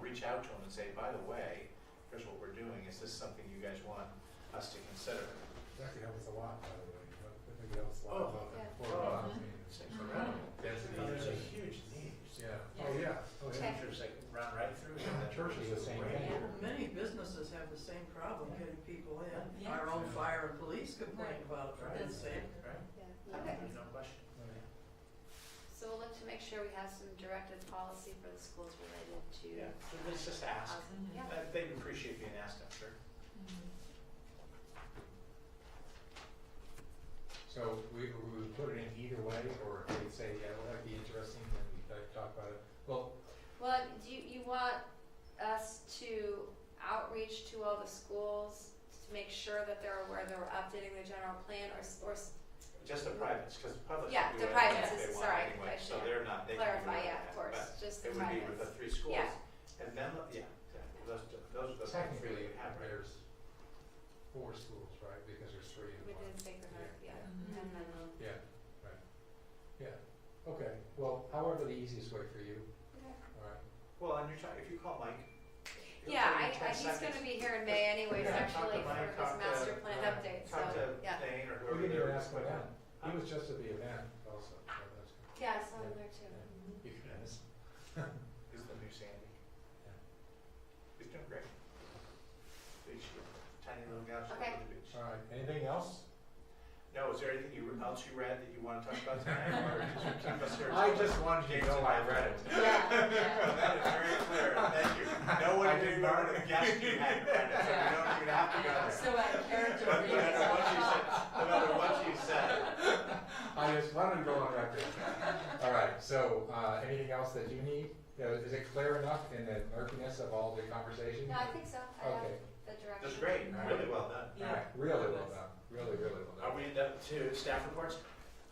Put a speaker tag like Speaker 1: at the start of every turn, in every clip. Speaker 1: reach out to them and say, by the way, here's what we're doing, is this something you guys want us to consider?
Speaker 2: That could help us a lot, by the way, but I think that was a lot
Speaker 1: Oh,
Speaker 2: about
Speaker 3: yeah.
Speaker 2: that before.
Speaker 1: Oh.
Speaker 2: about the-
Speaker 1: It's
Speaker 3: Uh-huh.
Speaker 1: incredible.
Speaker 2: Density.
Speaker 1: There's a huge need.
Speaker 2: Yeah,
Speaker 3: Yeah.
Speaker 2: oh, yeah, oh, yeah.
Speaker 3: Check.
Speaker 1: Pictures that run right through. here.
Speaker 2: The church is the same
Speaker 1: Right.
Speaker 2: way.
Speaker 3: Yeah.
Speaker 4: Many businesses have the same problem getting people in. Our own fire and police complain about it, right?
Speaker 3: That's-
Speaker 4: Same.
Speaker 1: Right?
Speaker 3: Yeah.
Speaker 1: There's
Speaker 3: Okay,
Speaker 1: No question.
Speaker 3: so we'll look to make sure we have some directed policy for the schools related
Speaker 1: Yeah,
Speaker 3: to.
Speaker 1: so let's just ask.
Speaker 3: housing. Yeah.
Speaker 1: Uh, They'd appreciate being asked, I'm sure.
Speaker 2: So we, we would put it in either way, or if we say, yeah, well, that'd be interesting, then we could talk about it. Well,
Speaker 3: Well, do you, you want us to outreach to all the schools to make sure that they're aware that we're updating the general plan or, s- or s-
Speaker 1: Just the privates, because the public
Speaker 3: Mm-hmm. Yeah,
Speaker 1: can
Speaker 3: the
Speaker 1: do
Speaker 3: privates
Speaker 1: anything
Speaker 3: is-
Speaker 1: they want
Speaker 3: sorry, I
Speaker 1: anyway, so
Speaker 3: should
Speaker 1: they're not, they can do
Speaker 3: clarify,
Speaker 1: whatever
Speaker 3: yeah,
Speaker 1: they
Speaker 3: of
Speaker 1: want,
Speaker 3: course,
Speaker 1: But
Speaker 3: just
Speaker 1: it
Speaker 3: the
Speaker 1: would be with the
Speaker 3: privates.
Speaker 1: three schools.
Speaker 3: Yeah.
Speaker 1: And then, yeah, exactly. Those, those are the three
Speaker 2: technically,
Speaker 1: we have, right?
Speaker 2: there's four schools, right, because there's three in
Speaker 3: We
Speaker 2: one.
Speaker 3: did Sacred Heart, yeah,
Speaker 4: Mhm.
Speaker 3: and then, um,
Speaker 2: Yeah, right, yeah, okay, well, however the easiest way for you, all right?
Speaker 1: Well, and you're talking, if you call Mike. it'll take him
Speaker 3: Yeah, I, I,
Speaker 1: 10
Speaker 3: he's
Speaker 1: seconds.
Speaker 3: gonna be here in May anyways,
Speaker 2: Yeah,
Speaker 1: talk to
Speaker 3: actually,
Speaker 1: Mike,
Speaker 3: for his
Speaker 1: talk to-
Speaker 3: master plan
Speaker 2: uh,
Speaker 3: update, so,
Speaker 1: Talk to
Speaker 3: yeah.
Speaker 1: Thane or
Speaker 2: We
Speaker 1: whoever.
Speaker 2: can even
Speaker 1: they're-
Speaker 2: ask what happened, he was just at the event also, so that's good.
Speaker 3: Yeah, I saw him there too.
Speaker 2: You can ask.
Speaker 1: He's the new Sandy.
Speaker 2: Yeah.
Speaker 1: He's doing great. Big shit. Tiny little guy
Speaker 3: Okay.
Speaker 1: on the beach.
Speaker 2: All right, anything else?
Speaker 1: No, is there anything you, else you read that you wanna talk about tonight, or just keep us here?
Speaker 2: I just wanted you to know I read it.
Speaker 3: Yeah, yeah.
Speaker 1: That is very clear, thank you. No
Speaker 2: I
Speaker 1: one
Speaker 2: didn't
Speaker 1: did
Speaker 2: know.
Speaker 1: more than guess you had read it, so you don't even have to go there.
Speaker 5: So uh, out of character
Speaker 1: No
Speaker 5: for you.
Speaker 1: matter what you said, no matter what you said.
Speaker 2: I just wanted to go on record. All right, so, uh, anything else that you need? You know, is it clear enough in the murkiness of all the conversation?
Speaker 3: No, I think so, I have
Speaker 2: Okay.
Speaker 3: the direction. Uh,
Speaker 1: That's great, really well done.
Speaker 2: All right, really well done, really, really well done.
Speaker 1: Are we up to staff reports?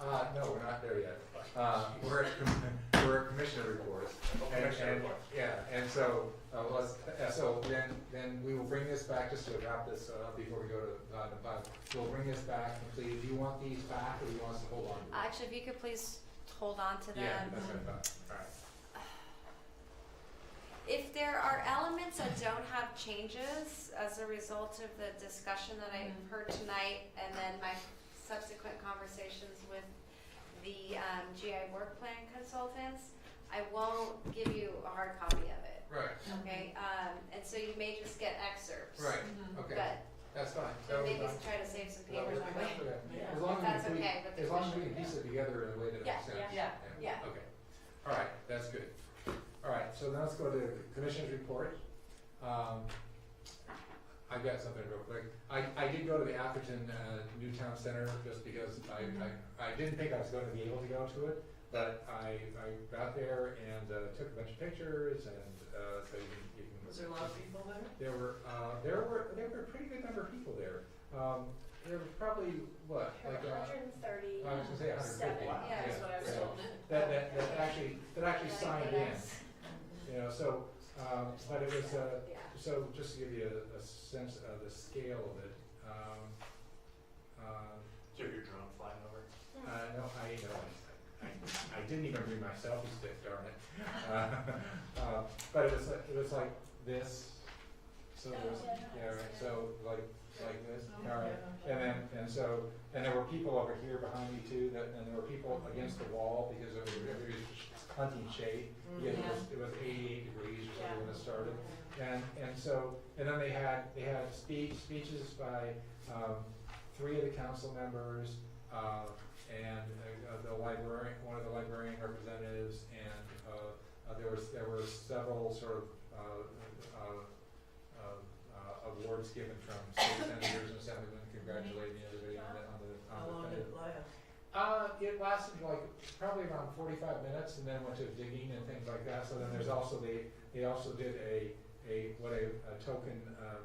Speaker 2: Uh, no, we're not there yet. Uh, we're at, com- we're at commissioner reports. And-
Speaker 1: Commissioner
Speaker 2: and-
Speaker 1: reports.
Speaker 2: Yeah, and so, uh, let's, uh, so then, then we will bring this back, just to wrap this up before we go to, uh, the bus. We'll bring this back completed. Do you want these back or do you want us to hold on to them?
Speaker 3: Actually, if you could please hold on to them.
Speaker 2: Yeah, that's what I thought. All right.
Speaker 3: If there are elements that don't have changes as a result of the discussion that I
Speaker 5: Mhm.
Speaker 3: heard tonight and then my subsequent conversations with the um, GI work plan consultants, I won't give you a hard copy of it,
Speaker 2: Right,
Speaker 3: okay? Um, and so you may just get excerpts.
Speaker 2: right,
Speaker 4: Mm-hmm.
Speaker 5: Mhm.
Speaker 2: okay,
Speaker 3: But
Speaker 2: that's fine. uh, That was
Speaker 3: maybe
Speaker 2: fine.
Speaker 3: try to save some
Speaker 2: That
Speaker 3: papers
Speaker 2: was-
Speaker 3: on
Speaker 2: that's
Speaker 3: it.
Speaker 2: okay.
Speaker 4: Yeah.
Speaker 2: As long as
Speaker 3: That's
Speaker 2: we,
Speaker 3: okay with the
Speaker 2: as long as we can
Speaker 3: commission.
Speaker 2: piece it together in a way that
Speaker 3: Yeah,
Speaker 2: makes sense.
Speaker 5: yeah,
Speaker 3: yeah.
Speaker 2: Okay, all right, that's good. All right, so now let's go to commissioners report. Um, I've got something real quick. I, I did go to the Atherton, uh, Newtown Center just because I,
Speaker 3: Mm-hmm.
Speaker 2: I, I didn't think I was going to be able to go to it. But I, I got there and, uh, took a bunch of pictures and, uh, so you can, you can.
Speaker 4: Was there a lot of people there?
Speaker 2: There were, uh, there were, there were a pretty good number of people there. Um, there were probably, what, like, uh,
Speaker 3: and thirty.
Speaker 2: I was gonna say a hundred fifty.
Speaker 1: Wow.
Speaker 3: Yeah,
Speaker 5: That's what I was
Speaker 2: yeah.
Speaker 5: told.
Speaker 2: That, that, that actually, that actually signed in, you know, so, um, but it was, uh,
Speaker 3: Yeah.
Speaker 2: so just to give you a, a sense of the scale of it, um, um,
Speaker 1: Do your drone flying over?
Speaker 2: uh, no, I, no, I, I- I didn't even bring my selfie stick, darn it. Uh, uh, But it was, like- it was like this, so there was, yeah, right, so like, like this,
Speaker 4: Oh,
Speaker 2: all right. And then, and so, and there were people over here behind me too, that, and there were people against the wall because of everybody's hunting shade. Yeah, it was, it was eighty-eight degrees or something when it started. And, and so, and then they had, they had speech, speeches by, um, three of the council members, uh, and uh, uh, the librarian, one of the librarian representatives, and, uh, uh, there was, there were several sort of, uh, uh, of, uh, awards given from state senators and assemblymen congratulating everybody on the, on the, on
Speaker 4: How
Speaker 2: the
Speaker 4: long
Speaker 2: thing.
Speaker 4: did it last?
Speaker 2: Uh, it lasted like probably around forty-five minutes and then went to digging and things like that, so then there's also the, they also did a, a, what a, a token, uh,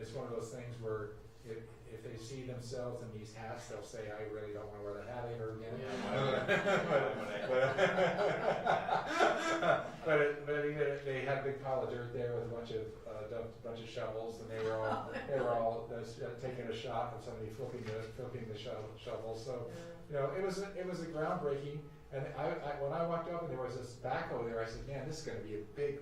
Speaker 2: it's one of those things where if, if they see themselves in these hats, they'll say, I really don't wanna wear that hat ever again. But, but it, but it, they had a big pile of dirt there with a bunch of, uh, dump- bunch of shovels and they were all, they were all, uh, taking a shot and somebody flipping the, flipping the shovel, shovel, so you know, it was a, it was a groundbreaking. And I, I when I walked up and there was this backhoe there, I said, "Man, this is going to be a big